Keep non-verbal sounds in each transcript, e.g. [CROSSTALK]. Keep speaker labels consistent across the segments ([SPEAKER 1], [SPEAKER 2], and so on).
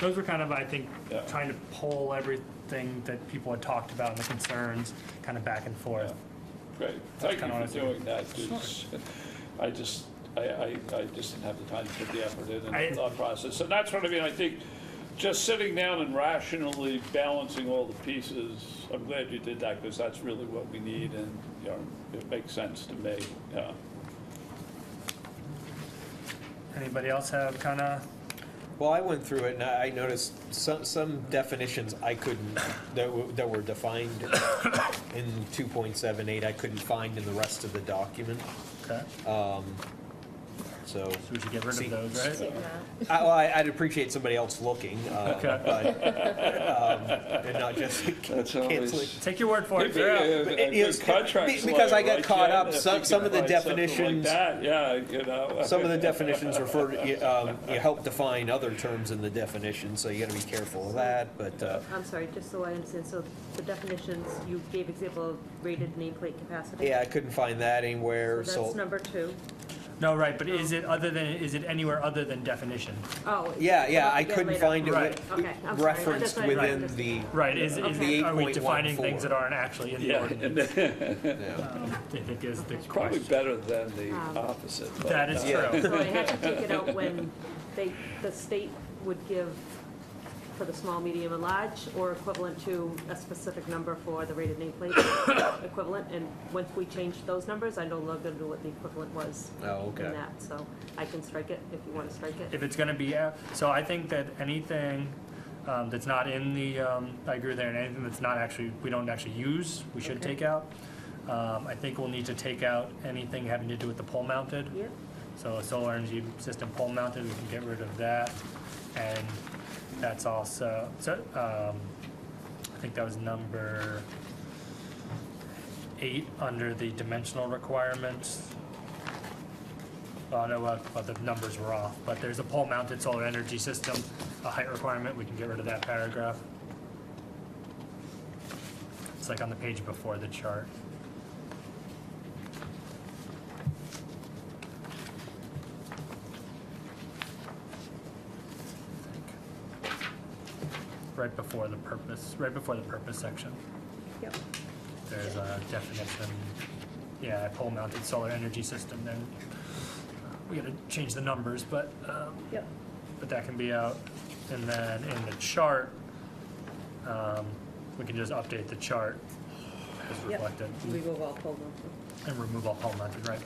[SPEAKER 1] those were kind of, I think,
[SPEAKER 2] Yeah.
[SPEAKER 1] trying to pull everything that people had talked about and the concerns, kind of back and forth.
[SPEAKER 2] Great,
[SPEAKER 1] That's
[SPEAKER 2] thank you
[SPEAKER 1] kinda what I
[SPEAKER 2] for
[SPEAKER 1] figured.
[SPEAKER 2] doing that, 'cause I just, I, I, I just didn't have the time to put the effort in
[SPEAKER 1] I-
[SPEAKER 2] and thought process. And that's what I mean, I think, just sitting down and rationally balancing all the pieces, I'm glad you did that, because that's really what we need, and, you know, it makes sense to me, yeah.
[SPEAKER 1] Anybody else have kind of,
[SPEAKER 3] Well, I went through it and I I noticed some, some definitions I couldn't, that were, that were defined in 2.78, I couldn't find in the rest of the document,
[SPEAKER 1] okay, so
[SPEAKER 3] so.
[SPEAKER 1] we should get rid
[SPEAKER 3] See,
[SPEAKER 1] of those, right?
[SPEAKER 4] Take that.
[SPEAKER 3] I, well, I- I'd appreciate somebody else looking, uh,
[SPEAKER 1] Okay.
[SPEAKER 3] but, um, and
[SPEAKER 1] [LAUGHS]
[SPEAKER 3] not just canceling.
[SPEAKER 1] Take your word for it,
[SPEAKER 2] uh,
[SPEAKER 1] they're out.
[SPEAKER 3] But it is- be- because I got caught up, some- some of the definitions-
[SPEAKER 2] Yeah, you know.
[SPEAKER 3] Some
[SPEAKER 2] [LAUGHS]
[SPEAKER 3] of the definitions refer to, you- um, you help define other terms in the definition, so you gotta be careful of that, but, uh,
[SPEAKER 4] I'm sorry, just so I understand, so the definitions, you gave example of rated nameplate capacity?
[SPEAKER 3] yeah, I couldn't find that anywhere,
[SPEAKER 4] So that's
[SPEAKER 3] so.
[SPEAKER 4] number two.
[SPEAKER 1] No, right, but is it other than, is it anywhere other than definition?
[SPEAKER 4] Oh.
[SPEAKER 3] Yeah, yeah,
[SPEAKER 4] I'll
[SPEAKER 3] I
[SPEAKER 4] get
[SPEAKER 3] couldn't
[SPEAKER 4] later.
[SPEAKER 3] find it
[SPEAKER 1] Right.
[SPEAKER 3] with-
[SPEAKER 4] Okay, I'm sorry. That's
[SPEAKER 3] referenced
[SPEAKER 4] what I thought.
[SPEAKER 3] within the,
[SPEAKER 1] Right, is, is,
[SPEAKER 4] Okay.
[SPEAKER 1] are we defining
[SPEAKER 3] 8.14.
[SPEAKER 1] things that aren't actually in the
[SPEAKER 2] Yeah,
[SPEAKER 1] ordinance?
[SPEAKER 2] and then-
[SPEAKER 1] I think is the
[SPEAKER 2] Probably
[SPEAKER 1] question.
[SPEAKER 2] better than the opposite. but-
[SPEAKER 1] Um, That is
[SPEAKER 3] Yeah.
[SPEAKER 1] true.
[SPEAKER 4] So I had to take it out when they, the state would give for the small, medium, and large, or equivalent to a specific number for the rated nameplate [COUGHS] equivalent, and once we changed those numbers, I no longer knew what the equivalent was.
[SPEAKER 3] Oh, okay.
[SPEAKER 4] In that, so I can strike it if you want to strike it.
[SPEAKER 1] If it's gonna be, out- so I think that anything um, that's not in the, um, I agree with Aaron, anything that's not actually, we don't actually use, we should
[SPEAKER 4] Okay.
[SPEAKER 1] take out. Um, I think we'll need to take out anything having to do with the pole mounted.
[SPEAKER 4] Yeah,
[SPEAKER 1] So a solar energy system pole mounted, we can get rid of that. And that's also, so, um, I think that was number eight under the dimensional requirements. Oh, no, well, well, the numbers were off, but there's a pole mounted solar energy system, a height requirement, we can get rid of that paragraph. It's like on the page before the chart. Right before the purpose, right before the purpose section.
[SPEAKER 4] yep.
[SPEAKER 1] There's a definition, yeah, pole mounted solar energy system, then uh, we gotta change the numbers, but, um,
[SPEAKER 4] Yep.
[SPEAKER 1] but that can be out. And then in the chart, um, we can just update the chart as reflected
[SPEAKER 4] Remove all pole mounted.
[SPEAKER 1] and remove all pole mounted, right?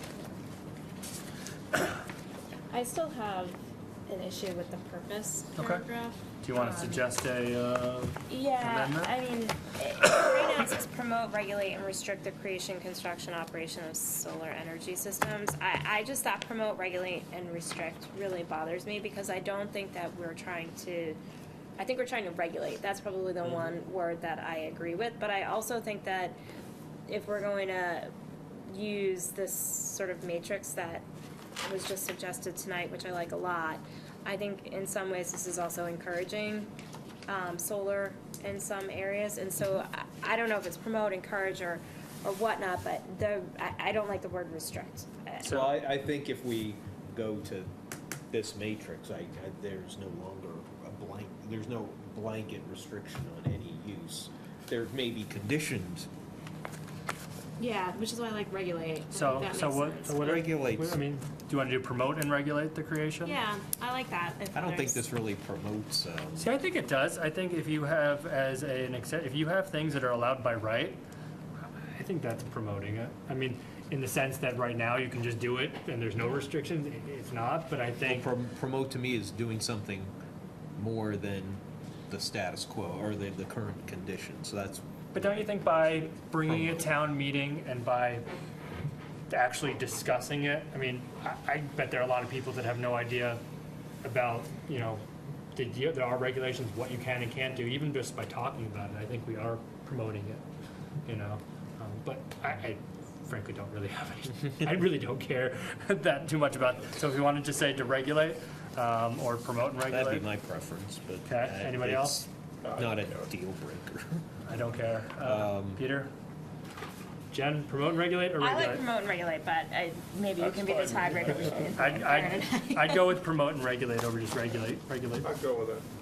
[SPEAKER 5] I still have an issue with the purpose
[SPEAKER 1] Okay.
[SPEAKER 5] paragraph.
[SPEAKER 1] Do you wanna
[SPEAKER 5] Um,
[SPEAKER 1] suggest a, uh,
[SPEAKER 5] Yeah,
[SPEAKER 1] amendment?
[SPEAKER 5] I mean, it- right now it says promote, regulate, and restrict the creation, construction, operation of solar energy systems. I, I just thought promote, regulate, and restrict really bothers me because I don't think that we're trying to, I think we're trying to regulate. That's probably
[SPEAKER 1] Mm-hmm.
[SPEAKER 5] the one word that I agree with, but I also think that if we're going to use this sort of matrix that was just suggested tonight, which I like a lot, I think in some ways this is also encouraging um, solar in some areas, and so I, I don't know if it's promote, encourage, or, or whatnot, but the, I, I don't like the word restrict. I-
[SPEAKER 3] so I, I think if we go to this matrix, I, I, there's no longer a blank, there's no blanket restriction on any use. There may be conditions,
[SPEAKER 5] Yeah, which is why I like regulate. I think
[SPEAKER 1] so,
[SPEAKER 5] that
[SPEAKER 1] so
[SPEAKER 5] makes
[SPEAKER 1] what,
[SPEAKER 5] sense.
[SPEAKER 1] so what are,
[SPEAKER 3] regulates.
[SPEAKER 1] I mean, do you wanna do promote and regulate the creation?
[SPEAKER 5] Yeah, I like that. if
[SPEAKER 3] I don't think
[SPEAKER 5] there's-
[SPEAKER 3] this really promotes, um,
[SPEAKER 1] See, I think it does. I think if you have as an exce- if you have things that are allowed by right, I think that's promoting it. I mean, in the sense that right now you can just do it and there's no restrictions, i- it's not, but I think,
[SPEAKER 3] prom- promote to me is doing something more than the status quo or the, the current condition, so that's,
[SPEAKER 1] but don't you think by bringing a town meeting and by actually discussing it, I mean, I, I bet there are a lot of people that have no idea about, you know, the, there are regulations, what you can and can't do, even just by talking about it, I think we are promoting it, you know? Um, But I, I frankly don't really have
[SPEAKER 3] [LAUGHS]
[SPEAKER 1] any, I really don't care [LAUGHS] that too much about, so if you wanted to say to regulate, um, or promote and regulate.
[SPEAKER 3] that'd be my preference, but.
[SPEAKER 1] Okay,
[SPEAKER 3] I-
[SPEAKER 1] anybody
[SPEAKER 3] it's Not a deal breaker. [LAUGHS]
[SPEAKER 1] I don't care. Uh,
[SPEAKER 3] Um,
[SPEAKER 1] Peter? Jen, promote and regulate or
[SPEAKER 5] I like
[SPEAKER 1] regulate?
[SPEAKER 5] promote and regulate, but I, maybe you
[SPEAKER 2] That's
[SPEAKER 5] can be the
[SPEAKER 2] fine.
[SPEAKER 3] [LAUGHS]
[SPEAKER 5] [LAUGHS] tiebreaker between.
[SPEAKER 1] I'd, I'd, I'd go with promote and regulate over just regulate, regulate.
[SPEAKER 6] I'd go with it.